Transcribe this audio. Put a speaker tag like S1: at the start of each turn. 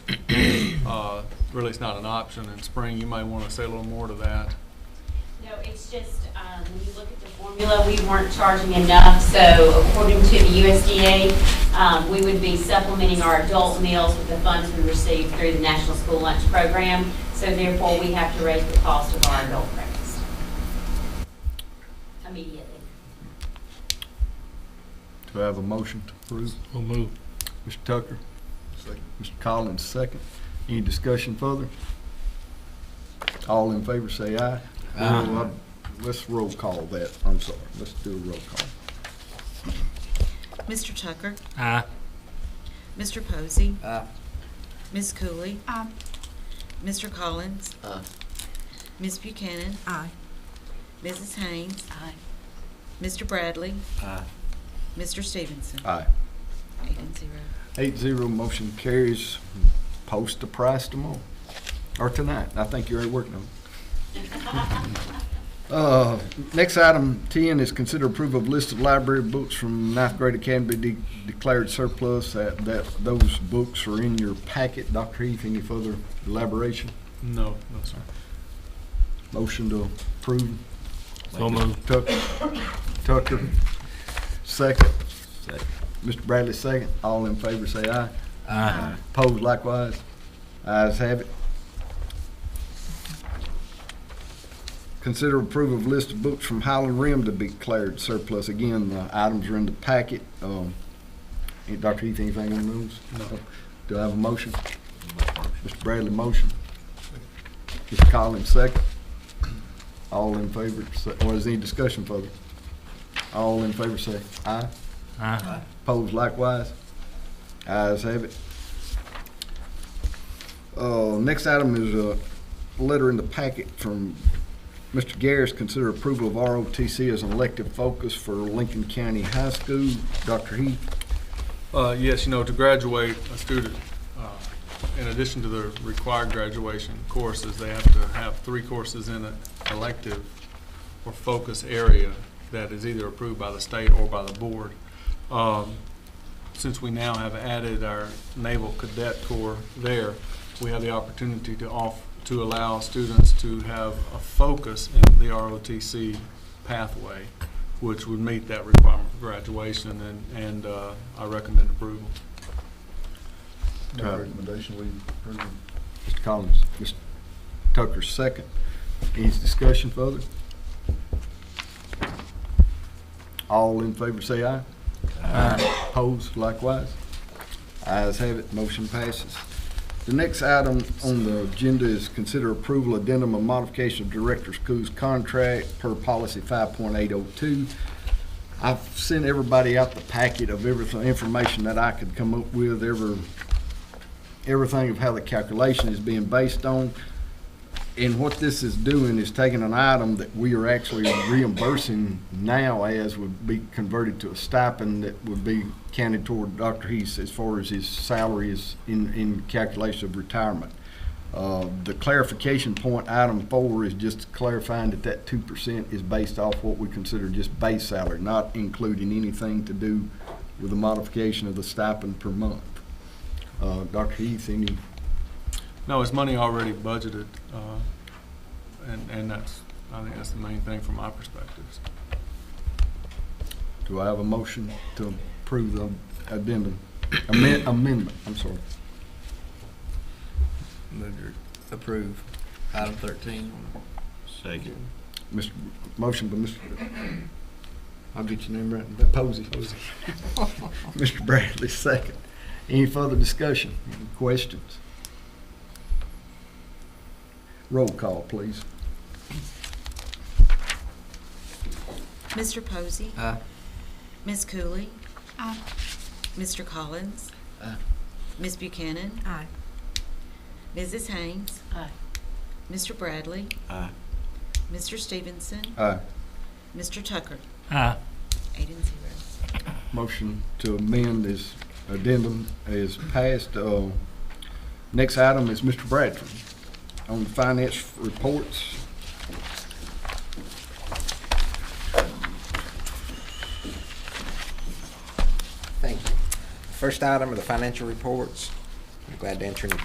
S1: Uh, really it's not an option. In spring, you might want to say a little more to that.
S2: No, it's just, um, when you look at the formula, we weren't charging enough, so according to the USDA, um, we would be supplementing our adult meals with the funds we receive through the National School Lunch Program, so therefore we have to raise the cost of our adult breakfast immediately.
S3: Do I have a motion to approve?
S4: We'll move.
S3: Mr. Tucker? Second. Mr. Collins, second. Any discussion further? All in favor, say aye.
S4: Aye.
S3: Well, I- Let's roll call that, I'm sorry, let's do a roll call.
S5: Mr. Tucker,
S4: Aye.
S5: Mr. Posey. Ms. Cooley. Mr. Collins. Ms. Buchanan. Aye. Mrs. Haynes. Aye. Mr. Bradley.
S4: Aye.
S5: Mr. Stevenson.
S3: Aye.
S5: Eight and zero.
S3: Eight zero, motion carries. Post the price tomorrow, or tonight. I think you're already working on it. Uh, Next item, ten, is consider approval of list of library books from ninth grade that can be de- declared surplus. That, that, those books are in your packet. Dr. Heath, any further elaboration?
S1: No, no, sir.
S3: Motion to approve.
S4: So moved.
S3: Tucker, Tucker, second. Mr. Bradley, second. All in favor, say aye.
S4: Aye.
S3: Opposed likewise. Ayes have it. Consider approval of list of books from Highland Rim to be declared surplus. Again, the items are in the packet. Um, any- Dr. Heath, anything on those?
S1: No.
S3: Do I have a motion? Mr. Bradley, motion. Mr. Collins, second. All in favor, say- or is any discussion further? All in favor, say aye.
S4: Aye.
S3: Opposed likewise. Ayes have it. Uh, Next item is a letter in the packet from Mr. Garris, consider approval of ROTC as an elective focus for Lincoln County High School. Dr. Heath,
S1: Uh, yes, you know, to graduate a student, uh, in addition to the required graduation courses, they have to have three courses in an elective or focus area that is either approved by the state or by the board. Um, Since we now have added our Naval Cadet Corps there, we have the opportunity to off, to allow students to have a focus in the ROTC pathway which would meet that requirement for graduation, and, and uh, I recommend approval.
S3: Make a
S6: recommendation, we approve.
S3: Mr. Uh, Collins, Mr. Tucker, second. Any discussion further? All in favor, say aye.
S4: Aye.
S3: Opposed likewise. Ayes have it, motion passes. The next item on the agenda is consider approval addendum and modification of Director School's contract per policy 5.802. I've sent everybody out the packet of everything, information that I could come up with, ever, everything of how the calculation is being based on. And what this is doing is taking an item that we are actually reimbursing now as would be converted to a stipend that would be counted toward Dr. Heath as far as his salary is in, in calculation of retirement. Uh, the clarification point, item four, is just clarifying that that two percent is based off what we consider just base salary, not including anything to do with the modification of the stipend per month. Uh, Dr. Heath, any
S1: No, it's money already budgeted, uh, and, and that's, I think that's the main thing from my perspective.
S3: Do I have a motion to approve the addendum, amend- amendment, I'm sorry.
S6: Move to approve item thirteen. Second.
S3: Mr., motion by Mr., I'll get your name right, but Posey. Mr. Bradley, second. Any further discussion, any questions? Roll call, please.
S5: Mr. Posey.
S6: Aye.
S5: Ms. Cooley.
S7: Aye.
S5: Mr. Collins.
S6: Aye.
S5: Ms. Buchanan.
S7: Aye.
S5: Mrs. Haynes.
S2: Aye.
S5: Mr. Bradley.
S6: Aye.
S5: Mr. Stevenson.
S3: Aye.
S5: Mr. Tucker.
S4: Aye.
S5: Eight and zero.
S3: Motion to amend this addendum is passed. Uh, Next item is Mr. Bradford on the finance reports.
S8: Thank you. First item are the financial reports. I'm glad to answer any